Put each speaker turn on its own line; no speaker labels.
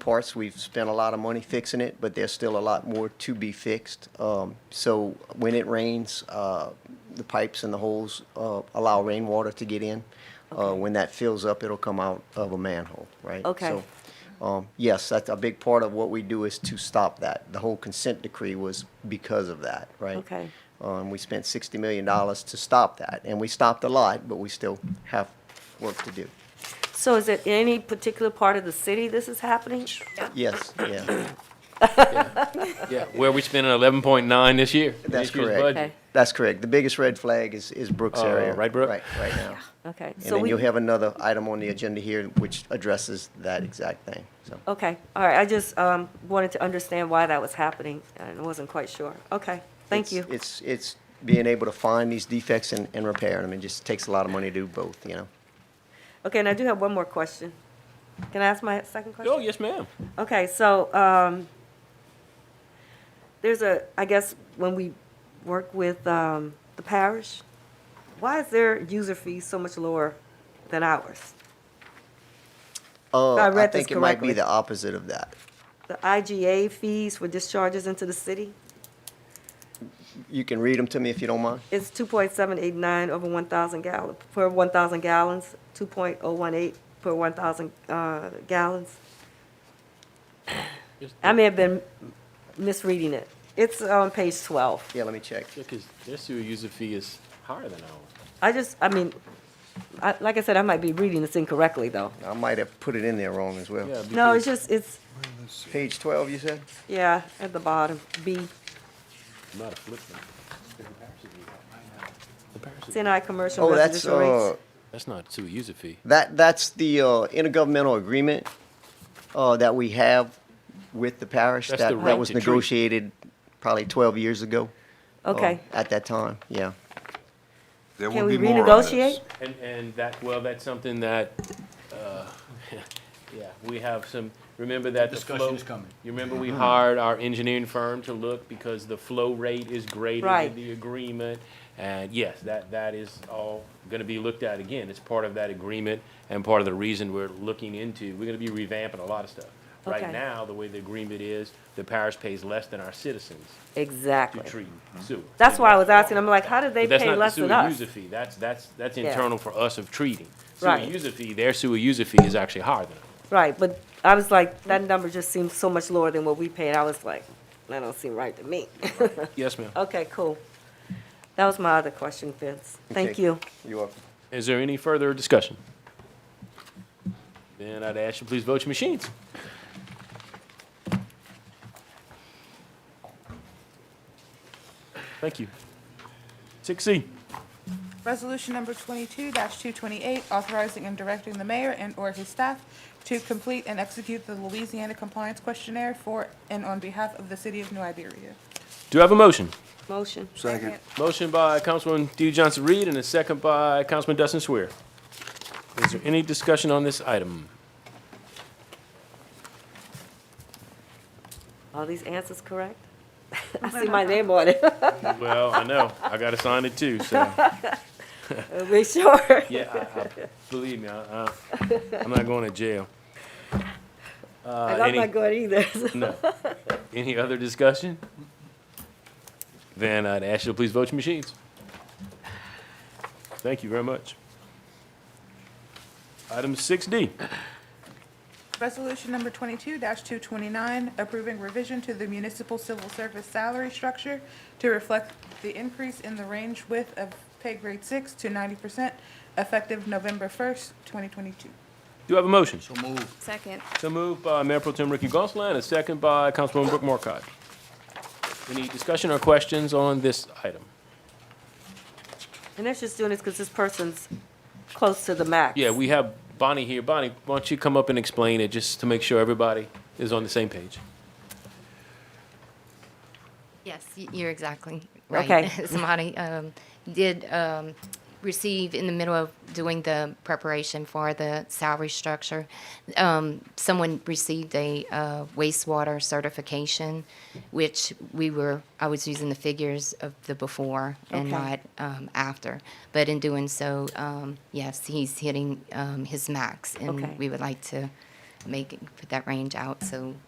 parts. We've spent a lot of money fixing it, but there's still a lot more to be fixed. Um, so when it rains, uh, the pipes and the holes uh, allow rainwater to get in. Uh, when that fills up, it'll come out of a manhole, right?
Okay.
So, um, yes, that's a big part of what we do is to stop that. The whole consent decree was because of that, right?
Okay.
Um, we spent sixty million dollars to stop that, and we stopped a lot, but we still have work to do.
So is it any particular part of the city this is happening?
Yes, yeah.
Yeah, where we spending eleven point nine this year?
That's
This year's
correct.
budget.
Okay,
That's correct. The biggest red flag is, is Brooks
Uh,
area.
right, Brooke?
Right, right now.
okay.
And
So
then
we.
you'll have another item on the agenda here which addresses that exact thing, so.
Okay, all right, I just um, wanted to understand why that was happening, and wasn't quite sure. Okay, thank
it's-
you.
It's, it's being able to find these defects and, and repair them. It just takes a lot of money to do both, you know?
Okay, and I do have one more question. Can I ask my second question?
Oh, yes, ma'am.
Okay, so, um, there's a, I guess, when we work with, um, the parish, why is their user fee so much lower than ours?
Uh,
I read this
think it might be
correctly.
the opposite of that.
The IGA fees for discharges into the city
You can read them to me if you don't mind.
is two point seven eight nine over one thousand gallon, per one thousand gallons, two point oh one eight per one thousand, uh, gallons.
Just-
I may have been misreading it. It's on page twelve.
Yeah, let me check.
Because their sewer user fee is higher than ours.
I just, I mean, I, like I said, I might be reading this incorrectly, though.
I might have put it in there wrong as well.
Yeah,
No, it's
because-
just, it's,
Page twelve, you said?
yeah, at the bottom, B,
Might have flipped them.
CNI commercial
Oh, that's,
residential
uh,
rates.
That's not sewer user fee.
That, that's the uh, intergovernmental agreement uh, that we have with the parish.
That's the
That,
right
that was
to treat.
negotiated probably 12 years ago. uh,
Okay,
At that time, yeah.
There will
can we
be more on this.
renegotiate?
And, and that, well, that's something that, uh, yeah, we have some, remember that the flow.
Discussion is coming.
You remember we hired our engineering firm to look because the flow rate is greater
Right.
than the agreement. And yes, that, that is all gonna be looked at again. It's part of that agreement and part of the reason we're looking into, we're gonna be revamping a lot of stuff. Right
Okay.
now, the way the agreement is, the parish pays less than our citizens to
Exactly.
treat sewer.
That's why I was asking, I'm like, how did they
But that's
pay
not
less
the
than
sewer
us?
user fee. That's that's that's
Yeah.
internal for us of treating. Sewer
Right.
user fee, their sewer user fee is actually higher than. ours.
Right, but I was like, that number just seems so much lower than what we pay, and I was like, that don't seem right to me.
Yes, ma'am.
Okay, cool. That was my other question, Vince. Thank
Okay.
you.
You're welcome.
Is there any further discussion? Then I'd ask you please vote your machines. Thank you. Six C.
Resolution number twenty-two two twenty-eight, authorizing and directing the mayor and/or his staff to complete and execute the Louisiana Compliance Questionnaire for and on behalf of the city of New Iberia.
Do I have a motion?
Motion.
Second.
Motion by Councilman D. Johnson Reed and a second by Councilman Dustin Swear. Is there any discussion on this item?
Are these answers correct? I see my name on it.
Well, I know. I got to sign it too, so.
Make sure.
Yeah, I, I, believe me, I, I, I'm not going to jail. Uh,
And I'm
any-
not good either.
No. Any other discussion? Then I'd ask you to please vote your machines. Thank you very much. Item six D.
Resolution number twenty-two two twenty-nine, approving revision to the municipal civil service salary structure to reflect the increase in the range width of pay grade six to ninety percent effective November first, twenty twenty-two.
Do I have a motion?
So move.
Second.
So moved by Mayor Pro Tem Ricky Gonsalas, and a second by Councilwoman Brooke Morcott. Any discussion or questions on this item?
And that's just doing this because this person's close to the max.
Yeah, we have Bonnie here. Bonnie, why don't you come up and explain it, just to make sure everybody is on the same page?
Yes, y- you're exactly right.
Okay.
Somebody um, did um, receive, in the middle of doing the preparation for the salary structure, um, someone received a uh, wastewater certification, which we were, I was using the figures of the before and
Okay.
not um, after. But in doing so, um, yes, he's hitting um, his max.
Okay.
And we would like to make, put that range out so